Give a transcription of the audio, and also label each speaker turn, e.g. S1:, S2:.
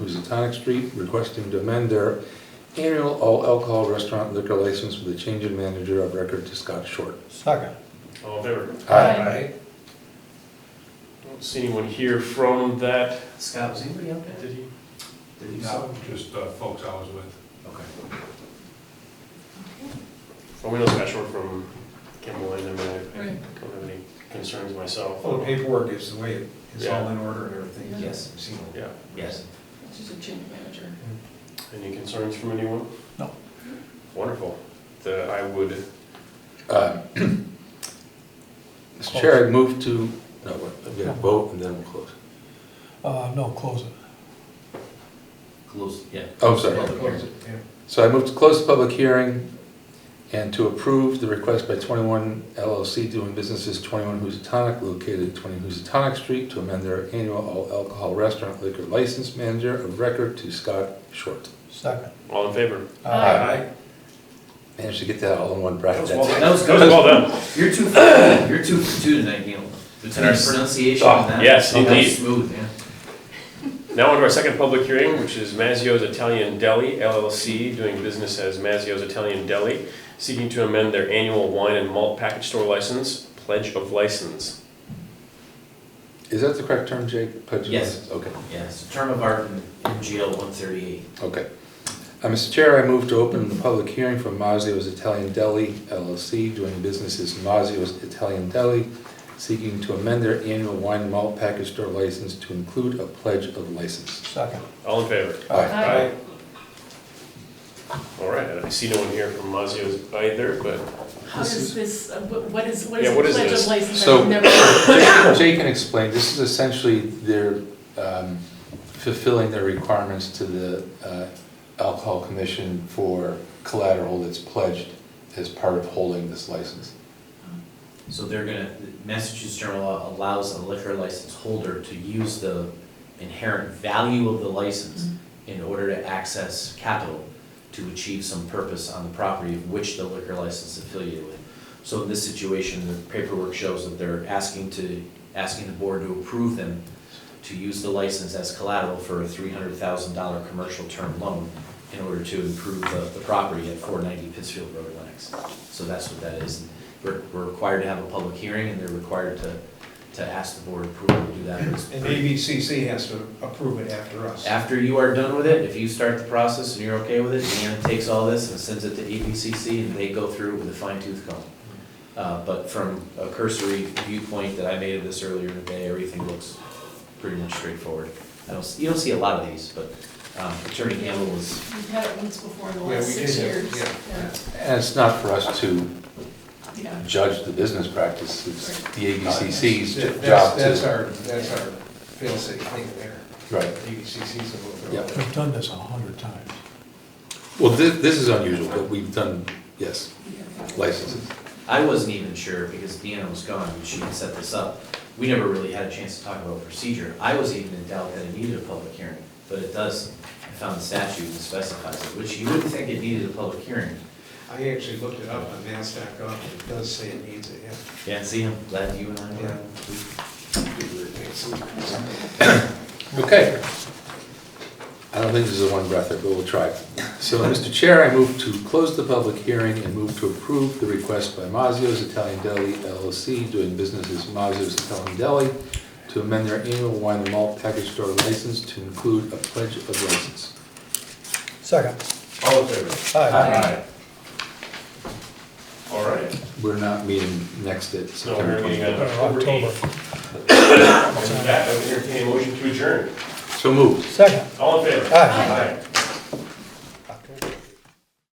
S1: Tonic Street requesting to amend their annual all alcohol restaurant liquor license with a change in manager of record to Scott Short.
S2: Second.
S3: All in favor?
S1: Aye.
S3: I don't see anyone here from that
S4: Scott, was anybody out there?
S3: entity.
S4: Did you
S5: No, just uh, folks I was with.
S4: Okay.
S3: Well, we know Scott Short from Kimball, and I mean, I- I
S6: Right.
S3: don't have any concerns myself.
S5: Well, the paperwork is the way it- it's all in order and
S6: Yeah.
S5: everything.
S4: Yes.
S5: I've seen it.
S3: Yeah,
S4: Yes.
S6: It's just a change manager.
S3: any concerns from anyone?
S2: No.
S3: Wonderful. The, I would,
S1: Uh, Mr. Chair, I move to, no, wait, we gotta vote and then we'll close.
S2: Uh, no, close it.
S4: Close, yeah.
S1: Oh, sorry.
S5: Yeah.
S1: So I move to close the public hearing and to approve the request by 21 LLC doing business as 21 Housatonic located at 20 Housatonic Street to amend their annual all alcohol restaurant liquor license manager of record to Scott Short.
S2: Second.
S3: all in favor?
S6: Aye.
S1: Managed to get that all in one bracket.
S3: That
S1: That's
S3: was
S1: it.
S4: That was
S3: That was
S4: good.
S3: well done.
S4: You're two, for- you're two for two tonight, Neil. Between
S3: our
S4: the
S3: s-
S4: pronunciation
S3: Oh,
S4: and that.
S3: yes,
S4: that was
S3: indeed.
S4: Smooth, yeah.
S3: Now on to our second public hearing, which is Mazio's Italian Deli LLC, doing business as Mazio's Italian Deli, seeking to amend their annual wine and malt package store license, pledge of license.
S1: Is that the correct term, Jake? Pledge of
S4: Yes.
S1: allegiance? Okay,
S4: Yes, term of art in in jail, one thirty-eight.
S1: okay. Uh, Mr. Chair, I move to open the public hearing for Mazio's Italian Deli LLC doing business as Mazio's Italian Deli seeking to amend their annual wine and malt package store license to include a pledge of license.
S2: Second.
S3: All in favor?
S1: Aye.
S6: Aye.
S3: All right, I see no one here from Mazio's either, but
S6: How does this, uh, wh- what is, what
S3: Yeah,
S6: is a
S3: what is
S6: pledge
S3: this?
S6: of license?
S1: So-
S6: I've never-
S1: Jay can explain, this is essentially their um, fulfilling their requirements to the uh, Alcohol Commission for collateral that's pledged as part of holding this license.
S4: So they're gonna, Massachusetts general law allows a liquor license holder to use the inherent value of the license in order to access capital to achieve some purpose on the property of which the liquor license is affiliated with. So in this situation, the paperwork shows that they're asking to, asking the board to approve them to use the license as collateral for a three hundred thousand dollar commercial term loan in order to improve the, the property at four ninety Pittsfield Road, Lennox. So that's what that is. We're, we're required to have a public hearing and they're required to, to ask the board approval to do that. It's
S5: And
S4: pretty-
S5: ABCC has to approve it after us.
S4: after you are done with it, if you start the process and you're okay with it, Deanna takes all this and sends it to E ABCC and they go through it with a fine tooth comb. Uh, but from a cursory viewpoint that I made of this earlier in the day, everything looks pretty much straightforward. I don't, s- you don't see a lot of these, but, um, Attorney Campbell was,
S6: We've had it once before in the
S5: Yeah, we
S6: last six
S5: did have-
S6: years.
S5: yeah.
S1: And it's not for us to
S6: Yeah.
S1: judge the business practice, it's the ABCC's
S5: That- that's-
S1: job
S5: That's
S1: to.
S5: our, that's our fail-safe thing there.
S1: Right.
S5: ABCC's a little.
S1: Yeah.
S2: We've done this a hundred times.
S1: Well, thi- this is unusual, but we've done, yes, licenses.
S4: I wasn't even sure because Deanna was gone and she had set this up. We never really had a chance to talk about procedure. I was even in doubt that it needed a public hearing, but it does, I found the statute that specifies it, which you wouldn't think it needed a public hearing.
S5: I actually looked it up on mass.gov, and it does say it needs it, yeah.
S4: Yeah, see, I'm glad you and I were.
S1: Okay. I don't think this is a one breather, but we'll try. So, Mr. Chair, I move to close the public hearing and move to approve the request by Mazio's Italian Deli LLC, doing business as Mazio's Italian Deli, to amend their annual wine and malt package store license to include a pledge of license.
S2: Second.
S3: all in favor?
S6: Aye.
S3: All right.
S1: We're not meeting next at
S3: So we're
S1: September
S3: meeting
S1: 20th.
S3: on
S2: Or
S3: October
S2: October.
S3: 8th. With that, I would entertain a motion to adjourn.
S1: So moved.
S2: Second.
S3: All in favor?
S2: Aye.
S3: Aye.